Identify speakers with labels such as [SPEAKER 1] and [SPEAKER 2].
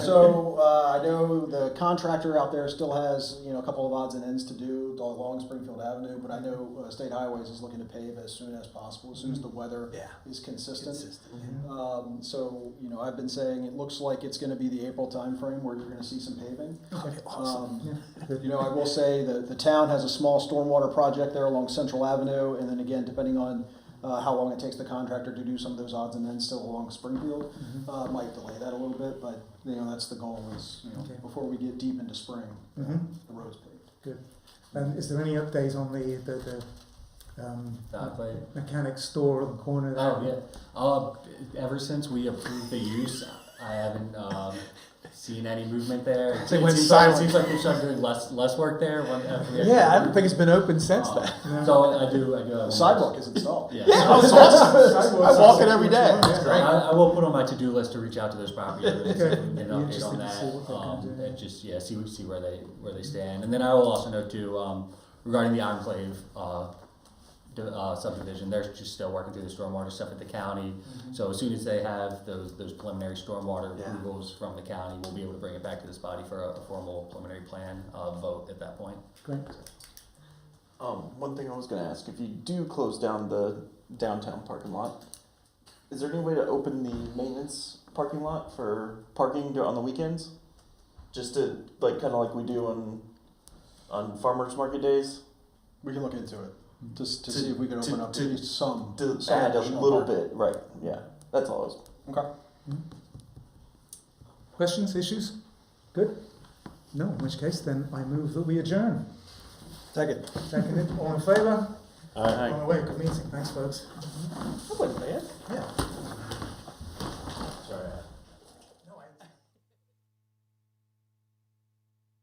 [SPEAKER 1] So, uh, I know the contractor out there still has, you know, a couple of odds and ends to do along Springfield Avenue, but I know uh, State Highways is looking to pave as soon as possible, as soon as the weather
[SPEAKER 2] Yeah.
[SPEAKER 1] is consistent.
[SPEAKER 2] Consistent.
[SPEAKER 1] Um, so, you know, I've been saying it looks like it's gonna be the April timeframe where you're gonna see some paving. Um, You know, I will say that the town has a small stormwater project there along Central Avenue, and then again, depending on uh, how long it takes the contractor to do some of those odds and ends still along Springfield, uh, might delay that a little bit, but, you know, that's the goal is, you know,
[SPEAKER 3] Okay.
[SPEAKER 1] before we get deep into spring, the
[SPEAKER 3] Mhm.
[SPEAKER 1] road's paved.
[SPEAKER 3] And is there any update on the, the, the um,
[SPEAKER 4] Not played.
[SPEAKER 3] mechanic store on the corner there?
[SPEAKER 4] Oh yeah. Uh, ever since we approved the use, I haven't um, seen any movement there. It,
[SPEAKER 2] They went
[SPEAKER 4] seems like, it
[SPEAKER 2] silent.
[SPEAKER 4] seems like they started doing less less work there. When, after we actually
[SPEAKER 2] Yeah, I don't
[SPEAKER 4] moved.
[SPEAKER 2] think it's been open since
[SPEAKER 4] Um,
[SPEAKER 2] then.
[SPEAKER 3] No.
[SPEAKER 4] So I do. I do. Have
[SPEAKER 1] The
[SPEAKER 4] one
[SPEAKER 1] sidewalk is installed.
[SPEAKER 4] Mm-hmm. Yeah.
[SPEAKER 2] Yeah, it's awesome. I walk it every day. It's
[SPEAKER 4] So
[SPEAKER 2] great.
[SPEAKER 4] I, I will put on my to do list to reach out to those property owners
[SPEAKER 3] Okay.
[SPEAKER 4] and get
[SPEAKER 3] Be
[SPEAKER 4] an update
[SPEAKER 3] interesting
[SPEAKER 4] on
[SPEAKER 3] to see what
[SPEAKER 4] that.
[SPEAKER 3] they can
[SPEAKER 4] Um,
[SPEAKER 3] do.
[SPEAKER 4] and just yeah, see see where they where they stand. And then I will also note too um, regarding the enclave. Uh, the, uh, subdivision, they're just still working through the stormwater stuff at the county. So as soon as they have those those preliminary stormwater
[SPEAKER 2] Yeah.
[SPEAKER 4] approvals from the county, we'll be able to bring it back to this body for a, a formal preliminary plan uh, vote at that point.
[SPEAKER 3] Great.
[SPEAKER 2] Um, one thing I was gonna ask, if you do close down the downtown parking lot, is there any way to open the maintenance parking lot for parking dur- on the weekends? Just to, like, kinda like we do on, on farmer's market days,
[SPEAKER 1] We can look into it, just to
[SPEAKER 2] To-
[SPEAKER 1] see if we can open
[SPEAKER 2] to-
[SPEAKER 1] up at
[SPEAKER 2] to-
[SPEAKER 1] least some.
[SPEAKER 2] to
[SPEAKER 1] some
[SPEAKER 2] add a
[SPEAKER 1] additional
[SPEAKER 2] little
[SPEAKER 1] parking.
[SPEAKER 2] bit, right, yeah, that's all I was.
[SPEAKER 1] Okay.
[SPEAKER 3] Questions, issues? Good? No, in which case then I move that we adjourn.
[SPEAKER 1] Second.
[SPEAKER 3] Seconded, all in favour?
[SPEAKER 2] Alright.
[SPEAKER 3] On the way, good meeting, thanks folks.
[SPEAKER 2] That wasn't bad.
[SPEAKER 3] Yeah.